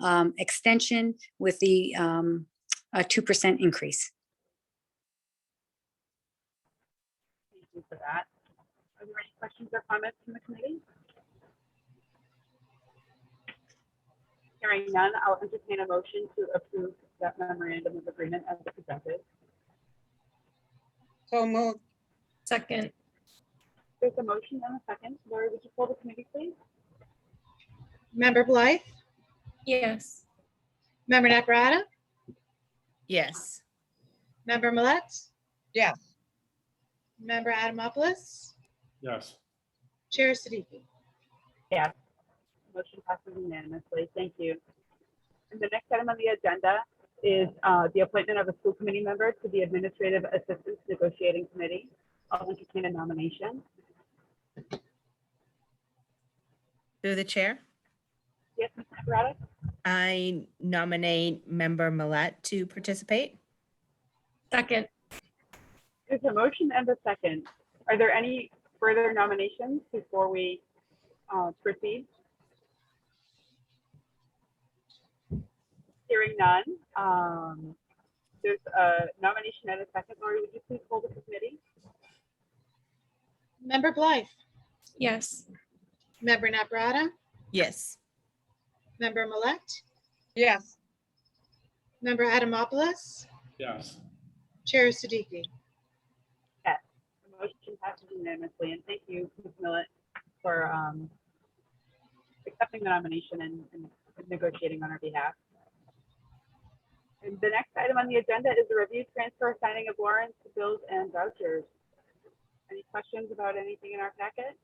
um, extension with the um, a two percent increase. Thank you for that. Are there any questions or comments from the committee? Hearing none, I'll entertain a motion to approve that memorandum of agreement as presented. So moved. Second, There's a motion and a second. Lori, would you pull the committee, please? Member Blythe? yes. Member Naprata? yes. Member Millet? Yes. Member Adamopoulos? yes. Chair Siddiqui? Motion passes unanimously. Thank you. And the next item on the agenda is uh, the appointment of a school committee member to the Administrative Assistance Negotiating Committee. I'll entertain a nomination. Through the chair, Yes, Ms. Naprata? I nominate member Millet to participate. Second, There's a motion and a second. Are there any further nominations before we uh, proceed? Hearing none. um, There's a nomination and a second. Lori, would you please hold the committee? Member Blythe? yes. Member Naprata? Yes. Member Millet? Yes. Member Adamopoulos? Yes. Chair Siddiqui? The motion passes unanimously, and thank you, Ms. Millet, for um, accepting the nomination and and negotiating on our behalf. And the next item on the agenda is the review, transfer, signing of warrants, bills, and vouchers. Any questions about anything in our packet?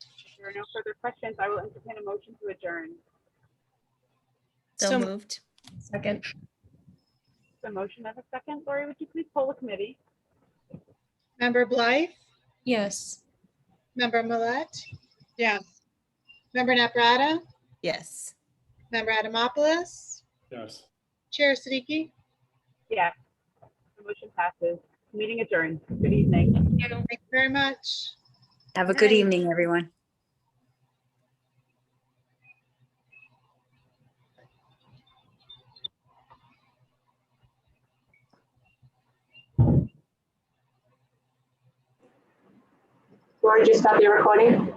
If there are no further questions, I will entertain a motion to adjourn. So So- moved. Second, The motion of a second. Lori, would you please poll the committee? Member Blythe? yes. Member Millet? Yes. Member Naprata? Yes. Member Adamopoulos? Yes. Chair Siddiqui? Yes. The motion passes. Meeting adjourned. Good evening. You. Thank you very much. Have a good Nice. evening, everyone. Lori, just stop your recording.